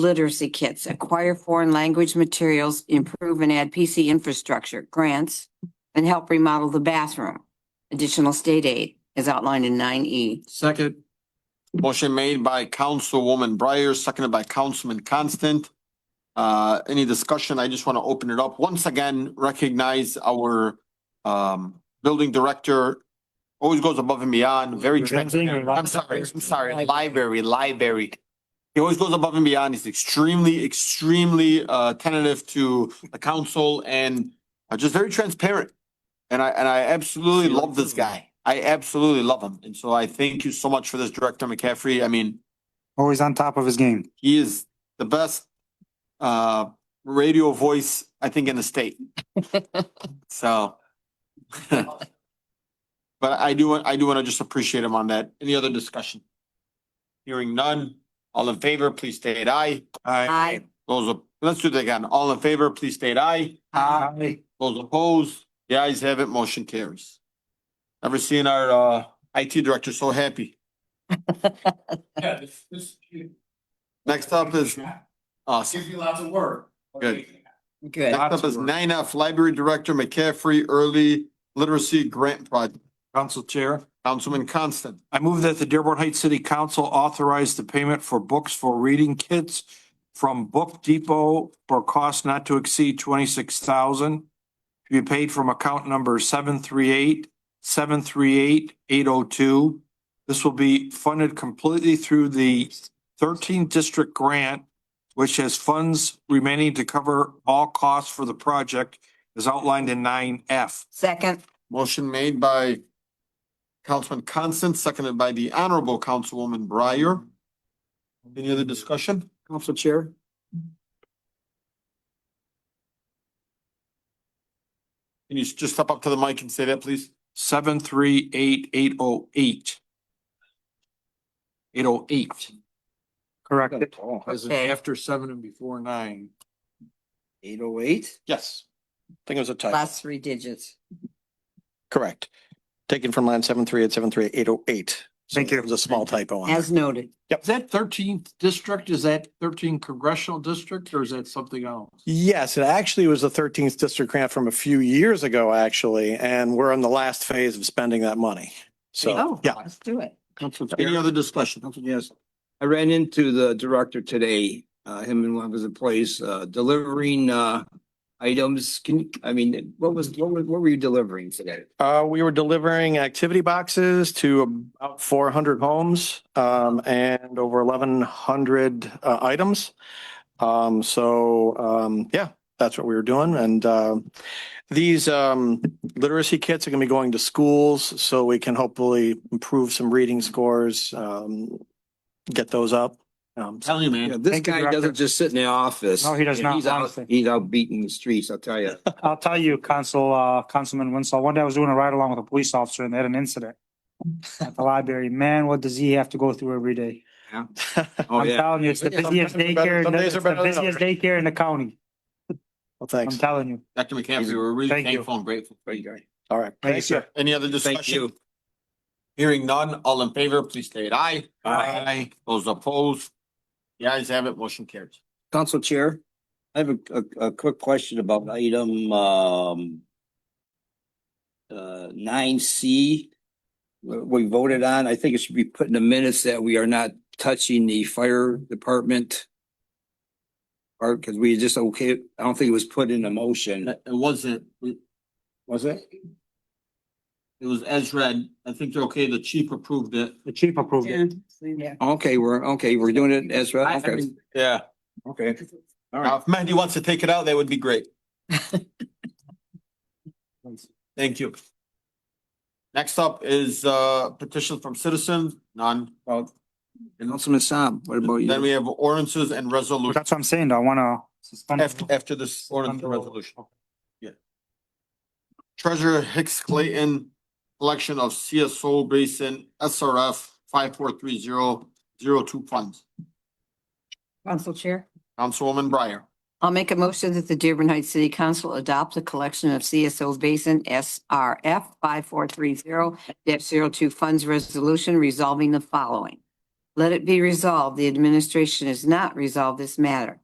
literacy kits, acquire foreign language materials, improve and add PC infrastructure, grants, and help remodel the bathroom. Additional state aid as outlined in nine E. Second. Motion made by Councilwoman Breyer, seconded by Councilman Constant. Uh, any discussion? I just want to open it up. Once again, recognize our um building director. Always goes above and beyond, very transparent. I'm sorry, I'm sorry, library, library. He always goes above and beyond. He's extremely, extremely uh tentative to the council and uh, just very transparent. And I, and I absolutely love this guy. I absolutely love him. And so I thank you so much for this, Director McCaffrey. I mean, Always on top of his game. he is the best uh radio voice, I think, in the state. So. But I do, want I do want to just appreciate him on that. Any other discussion? Hearing none. All in favor, please state aye. E. Aye. Those, op- let's do that again. All in favor, please state aye. Those opposed, the ayes have it, motion carries. Never seen our uh IT director so happy. Yeah, this, this, you- Next up is, awesome. gives you lots of work. Good. Good. Next up is nine F, Library Director McCaffrey Early Literacy Grant Project. Council Chair, Councilman Constant, I move that the Dearborn Heights City Council authorize the payment for books for reading kits from Book Depot for cost not to exceed twenty-six thousand to be paid from account number seven three eight, seven three eight, eight oh two. This will be funded completely through the thirteen district grant, which has funds remaining to cover all costs for the project as outlined in nine F. Second, motion made by Councilman Constant, seconded by the Honorable Councilwoman Breyer. Any other discussion? Council Chair. Can you s- just step up to the mic and say that, please? seven three eight eight oh eight. Eight oh eight. Correct. As in Okay. after seven and before nine. Eight oh eight? Yes. I think it was a typo. last three digits. Correct. Taken from line seven three eight, seven three eight, eight oh eight. Thank you. It was a small typo on that. As noted, Is that thirteenth district? Is that thirteen congressional district or is that something else? Yes, it actually was the thirteenth district grant from a few years ago, actually, and we're in the last phase of spending that money. So, yeah, Oh, let's do it. Any other discussion? Yes, I ran into the director today, uh, him and one of his employees, uh, delivering, uh, items. Can, you- I mean, what was, what were, what were you delivering today? uh, we were delivering activity boxes to about four hundred homes, um, and over eleven hundred, uh, items. Um, so, um, yeah, that's what we were doing. And, um, These um, literacy kits are going to be going to schools, so we can hopefully improve some reading scores, um, get those up. Um, so- Tell you, Yeah, man. this Thank you, guy Director. doesn't just sit in the office. No, he does If not, he's out- honestly. He's out beating the streets, I'll tell you. I'll tell you, Council, uh, Councilman Winslow, one day I was doing a ride along with a police officer and they had an incident at the library. Man, what does he have to go through every day? Oh, I'm yeah. telling you, it's the Some busiest days are better- daycare, in some the- days are it's the better than busiest daycare in the county. Well, I'm thanks. telling you. Dr. McCaffrey, we're really Thank you. thankful and grateful. for Great you. guy. All right. Thank you. Any other Thank discussion? you. Hearing none, all in favor, please state aye. Aye. Those opposed, the ayes have it, motion carries. Council Chair, I have a, a, a quick question about item, um, uh, nine C, we voted on, I think it should be put in the minutes that we are not touching the fire department. Or, because we just okay, I don't think it was put in a motion, It wasn't, it was it? was as read. I think they're okay. The chief approved it. The chief approved it. Okay, we're, okay, we're doing it, as I- I right, okay, mean, Yeah. okay. All Now, right, if Mandy wants to take it out, that would be great. Thank you. Next up is uh petition from citizens, none. well, Councilman Saab, what about Then we you? have ordinances and But resolutions That's what I'm saying, though. I wanna suspend. after after this ordinance and resolution. Treasurer Hicks Clayton, collection of CSO Basin SRF five four three zero zero two funds. Council Chair. Councilwoman Breyer. I'll make a motion that the Dearborn Heights City Council adopt the collection of CSO Basin SRF five four three zero 2 funds resolution resolving the following. Let it be resolved, the administration has not resolved this matter.